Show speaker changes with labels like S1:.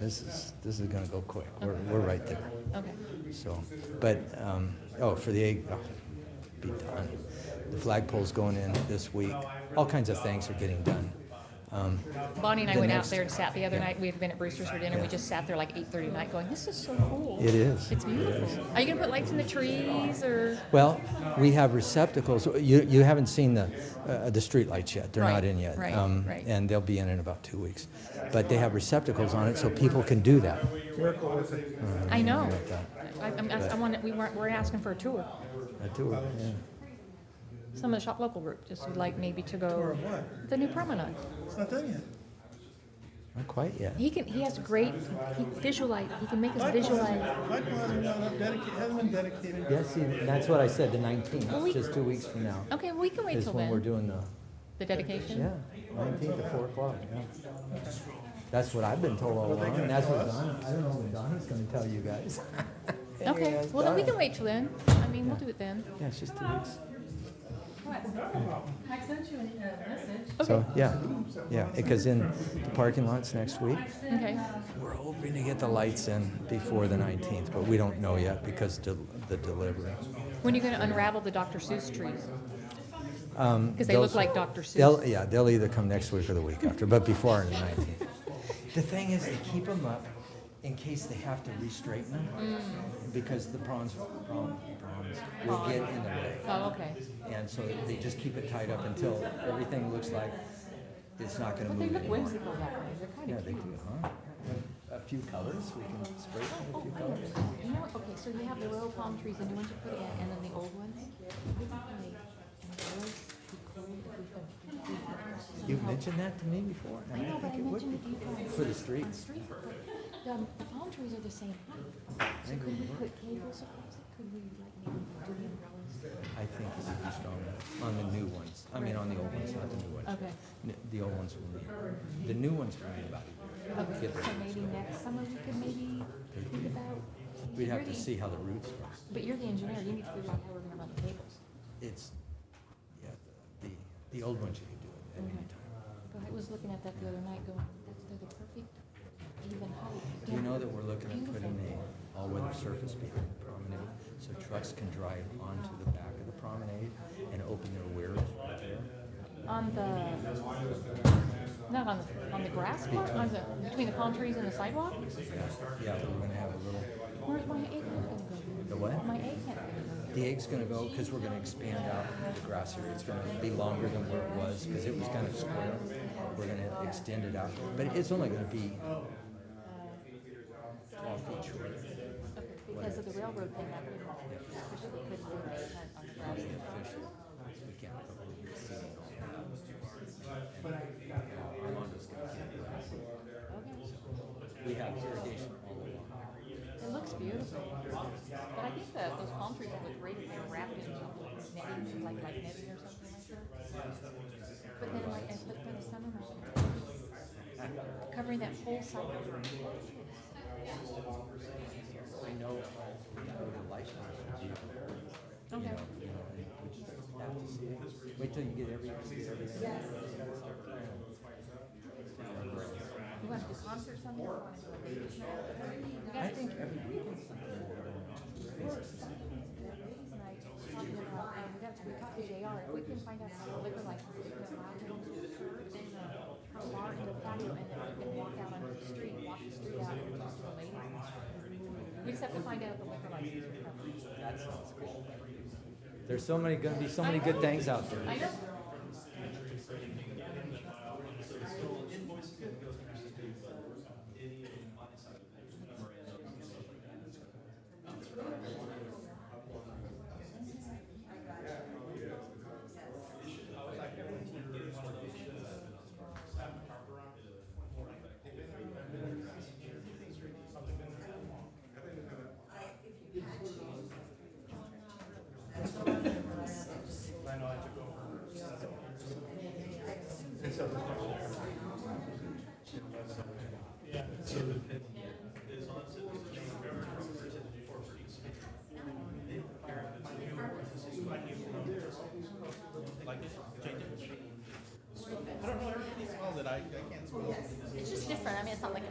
S1: This is, this is gonna go quick. We're, we're right there.
S2: Okay.
S1: So, but, um, oh, for the, egg- oh, be done. The flagpole's going in this week. All kinds of things are getting done. Um,
S2: Bonnie and I
S1: The
S2: went out
S1: next-
S2: there and sat the other
S1: yeah.
S2: night. We had been at Brewster's for dinner. We
S1: Yeah.
S2: just sat there like 8:30 at night, going, "This is so cool.
S1: It is.
S2: It's beautiful. Are you gonna put lights in the trees or?"
S1: Well, we have receptacles. You, you haven't seen the, uh, the streetlights yet. They're not
S2: Right,
S1: in yet. Um,
S2: right, right.
S1: And they'll be in in about two weeks. But they have receptacles on it so people can do that.
S2: I know.
S1: about that.
S2: I, I'm, I, I want. We weren't. We're asking for a tour.
S1: I do, yeah.
S2: Some of the shop local group just would like maybe to go.
S3: Or what?
S2: The new promenade.
S3: It's not done yet.
S1: Not quite yet.
S2: He can. He has great. He visualize. He can make us
S3: Black Plaza,
S2: visualize.
S3: Black Plaza not up dedicated, hasn't been dedicated.
S1: Yes, see, that's what I said, the
S2: Well,
S1: 19th,
S2: we-
S1: just two weeks from now,
S2: Okay, well, we can wait
S1: is
S2: till
S1: when we're
S2: then.
S1: doing the,
S2: The dedication.
S1: yeah, 19th at 4 o'clock, yeah. That's what I've been told all along, and that's what Don, I don't know what Donna's gonna tell you guys.
S2: Okay. Well, then we can wait till then. I mean, we'll do it then.
S1: Yeah, it's just two weeks.
S4: I sent you a message.
S1: So, yeah, yeah, because in the parking lots next week,
S2: Okay.
S1: we're hoping to get the lights in before the 19th, but we don't know yet because del- the delivery.
S2: When are you gonna unravel the Dr. Seuss trees? Because they
S1: Um, those-
S2: look like Dr. Seuss.
S1: They'll, yeah, they'll either come next week or the week after, but before the 19th. The thing is, they keep them up in case they have to re-straighten them,
S2: Mm.
S1: because the prawns, prawn, prawns will get in the way.
S2: Oh, okay.
S1: And so they just keep it tied up until everything looks like it's not gonna
S2: But they
S1: move
S2: look
S1: anymore.
S2: whimsical that way. They're kind
S1: Yeah,
S2: of
S1: they
S2: cute.
S1: do, huh? A few colors, we can spray paint a
S2: Oh,
S1: few
S2: I know.
S1: colors.
S2: You know, what? okay, so you have the royal palm trees, the new ones you put in, and then the old ones.
S1: You've mentioned that to me before,
S2: I
S1: and I
S2: know, but
S1: think
S2: I
S1: it would
S2: mentioned it
S1: be.
S2: to you guys.
S1: For the
S2: On
S1: streets.
S2: street, but the, the palm trees are the same height. So
S1: think it
S2: could we
S1: would
S2: put cables across it? Could we like maybe do the umbrellas?
S1: I think it would be stronger on the new ones. I mean, on the old ones, not the new ones.
S2: Okay.
S1: N- The old ones will need, the new ones will need about a year.
S2: Okay,
S1: Get
S2: so
S1: the-
S2: maybe next summer we could maybe think about.
S1: We'd have to
S2: you're the-
S1: see how the roots are.
S2: But you're the engineer, you need to figure out how we're gonna run the cables.
S1: It's, yeah, the, the old ones you could do it at any
S2: Okay.
S1: time.
S2: But I was looking at that the other night going, that's, they're the perfect even height.
S1: Do you
S2: Yeah.
S1: know that we're looking at putting
S2: Beautiful.
S1: a all-weather surface behind the promenade? So trucks can drive onto the back of the promenade and open their wheels right there?
S2: On the, not on the, on the grass part, on the, between the palm trees and the sidewalk?
S1: Yeah, yeah, we're gonna have a little,
S2: Where's my egg gonna go?
S1: the what?
S2: My egg can't go.
S1: The egg's gonna go, because we're gonna expand out the grass area. It's gonna be longer than where it was, because it was kind of square. We're gonna extend it out, but it's only gonna be twelve feet shorter.
S2: Okay, Because of the railroad thing that we officially couldn't do an egg hunt on the grass.
S1: Official, we can't put the seating on that. And Armando's gonna keep it grass.
S2: Okay,
S1: We have irrigation all along.
S2: it looks beautiful. But I think that those palm trees would look great if they were wrapped in something, knitting, like, like knitting or something like that. But then like, and put by the summer or something. Covering that whole side.
S1: I know how the license would be.
S2: Okay.
S1: You know, you know, and we just have to see it. Wait till you get every, get everything.
S2: You want to do concerts on this one?
S1: I think every weekend.
S2: We got to we talked to JR, if we can find out how liquor license is allowed in the church and the the bar and the patio and then we can walk out onto the street, walk the street out and talk to the ladies. We just have to find out the liquor license.
S1: That sounds cool. There's so many, gonna be so many good things out there.
S2: I know. It's just different. I mean, it's not like a